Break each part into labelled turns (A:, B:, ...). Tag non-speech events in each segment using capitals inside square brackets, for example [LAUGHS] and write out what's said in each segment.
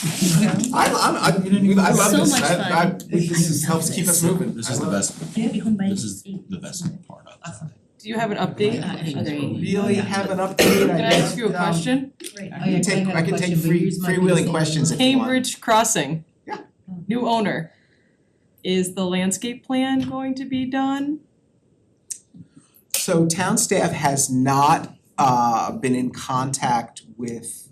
A: I I'm I I love
B: So
A: this,
B: much
A: I I
B: fun.
A: this is helps keep us moving.
C: This
A: I
C: is the
A: love it.
C: best,
B: You have your home by eight.
C: this is the best part of it.
D: Do you have an update?
B: I agree.
A: Really have an update, I
D: Can I ask you a
A: guess, um,
D: question?
B: Right.
A: I can take, I can take free freewheeling questions if you want.
D: Cambridge Crossing.
A: Yeah.
D: New owner. Is the landscape plan going to be done?
A: So town staff has not uh been in contact with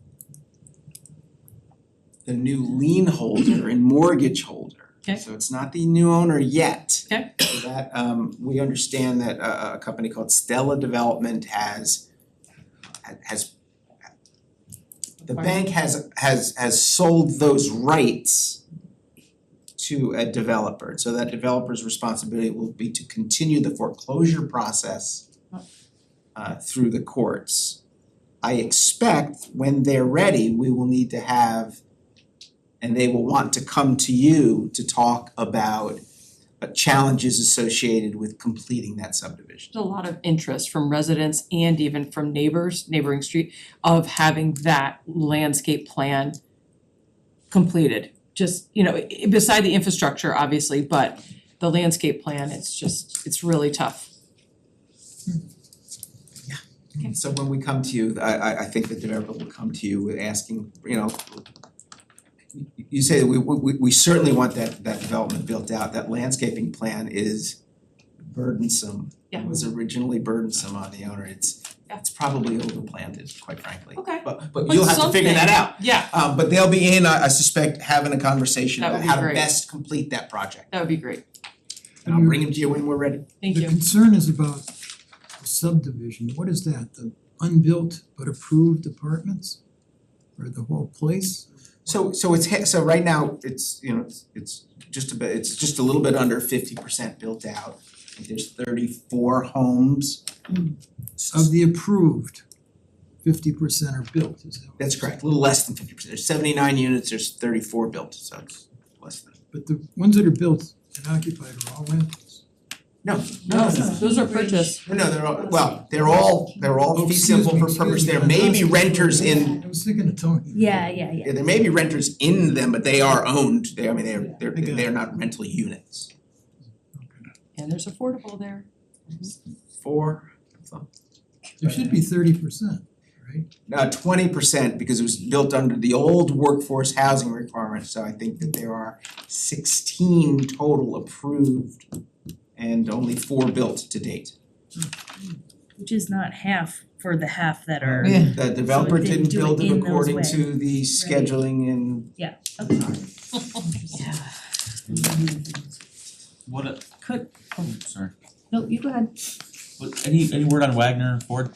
A: the new lien holder and mortgage holder.
D: Okay.
A: So it's not the new owner yet.
D: Okay.
A: So that um we understand that uh, a a company called Stella Development has has the bank has has has sold those rights to a developer, so that developer's responsibility will be to continue the foreclosure process uh through the courts. I expect when they're ready, we will need to have and they will want to come to you to talk about uh, challenges associated with completing that subdivision.
D: There's a lot of interest from residents and even from neighbors, neighboring street, of having that landscape plan completed. Just, you know, i- i- beside the infrastructure, obviously, but the landscape plan, it's just, it's really tough.
A: So when we come to you, I I I think the developer will come to you with asking, you know, you- you say we we we certainly want that that development built out, that landscaping plan is burdensome.
D: Yeah.
A: It was originally burdensome on the owner, it's
D: Yeah.
A: it's probably overplanted, quite frankly.
D: Okay.
A: But but you'll have to figure that out.
D: Yeah,
A: Um but they'll be in, I I suspect, having a conversation
D: That would
A: about
D: be
A: how to
D: great. Mm-hmm.
A: best complete that project.
D: that would be great.
A: And I'll bring them to you when we're ready.
D: Thank
E: The
D: you.
E: concern is about subdivision, what is that, the unbuilt but approved apartments? Or the whole place?
A: So so it's he- so right now, it's, you know, it's it's just a bit, it's just a little bit under fifty percent built out. I think There's thirty four homes.
E: Of the approved, fifty percent are built, is that what
A: That's
E: you're
A: correct, a little less than fifty percent, there's seventy nine units, there's thirty four built, so it's less than.
E: saying? But the ones that are built and occupied are all rentals.
A: No,
D: No, those are purchase.
A: No, no, they're all, well, they're all, they're all
E: Oh,
A: fee
E: excuse
A: simple
E: me,
A: for
E: excuse
A: purpose,
E: me,
A: there
E: I'm
A: may be
E: asking for-
A: renters in,
E: I was thinking of Tony.
B: Yeah, yeah, yeah.
A: yeah, there may be renters in them, but they are owned, they, I mean, they're they're
E: I got it.
A: they're not rental units.
E: Okay.
D: And there's affordable there.
A: Four,
E: There should be thirty percent, right?
A: uh twenty percent because it was built under the old workforce housing requirement, so I think that there are sixteen total approved and only four built to date.
B: Which is not half for the half that are.
A: The developer
B: didn't
A: didn't
B: do it
A: build it
B: in those
A: according
B: way.
A: to the scheduling and
B: Okay.
D: Yeah.
C: What a,
B: Could,
C: oh, sorry,
B: no, you go ahead.
C: what, any any word on Wagner and Ford?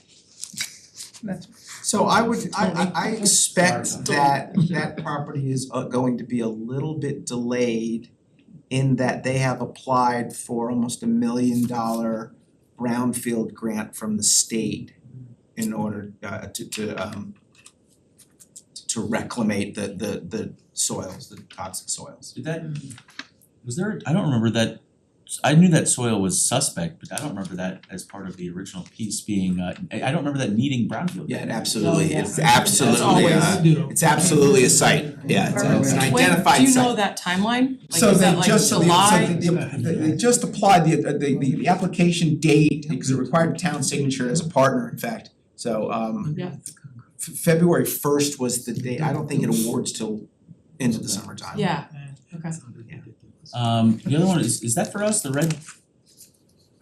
A: So I would, I I I expect
C: Sorry
A: that that property is uh, going to be a little bit delayed in that they have applied for almost a million dollar brownfield grant from the state in order uh to to um to reclimate the the the soils, the toxic soils.
C: Did that, was there, I don't remember that, I knew that soil was suspect, but I don't remember that as part of the original piece being, uh, I I don't remember that needing brownfield.
A: Oh, Yeah, it
E: Oh,
A: absolutely, it's
C: Yeah.
A: absolutely,
C: That's
A: uh, it's absolutely a site, yeah, it's a- it's an
E: Perfect.
D: When-
A: identified site.
D: do you know that timeline? Like,
A: So
D: is
A: they
D: that like
A: just, so they- so
D: July?
A: they, they- they just applied the, uh, the, the, the application date, because it required town signature as a partner, in fact. So, um,
D: Yeah.
A: F- February first was the date, I don't think it awards till into the summertime.
D: Yeah, okay.
E: Okay.
C: Um, the other one is, is that for us, the red?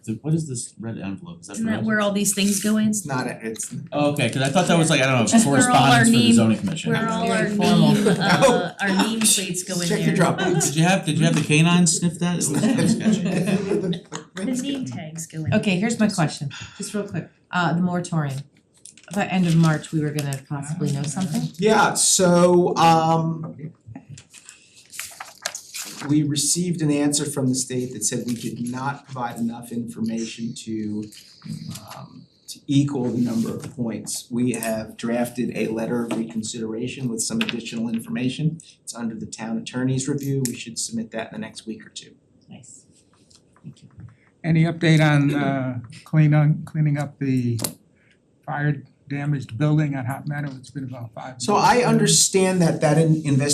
C: The, what is this red envelope, is that
B: Isn't
C: for
B: that
C: us?
B: where all these things go in?
A: It's not, a- it's,
C: Oh, okay, cause I thought that was like, I don't know,
B: That's where all our
C: correspondence for the
B: name-
C: zoning commission.
B: Where all our
D: Very formal.
B: name, uh, our name plates go in there.
A: check your Dropbox.
C: Did you have, did you have the canine
B: [LAUGHS]
C: sniff that? It was kinda sketchy.
A: [LAUGHS]
D: [LAUGHS]
B: The name tags go in. there.
F: Okay, here's my question, just real quick, uh the moratorium, by end of March, we were gonna possibly know something?
A: Yeah, so um we received an answer from the state that said we did not provide enough information to um to equal the number of points. We have drafted a letter of reconsideration with some additional information. It's under the town attorney's review. We should submit that in the next week or two.
F: Nice.
G: Any update on uh clean on cleaning up the fire damaged building on Hot Meadow? It's been about five
A: So I
G: years.
A: understand that that in- investigation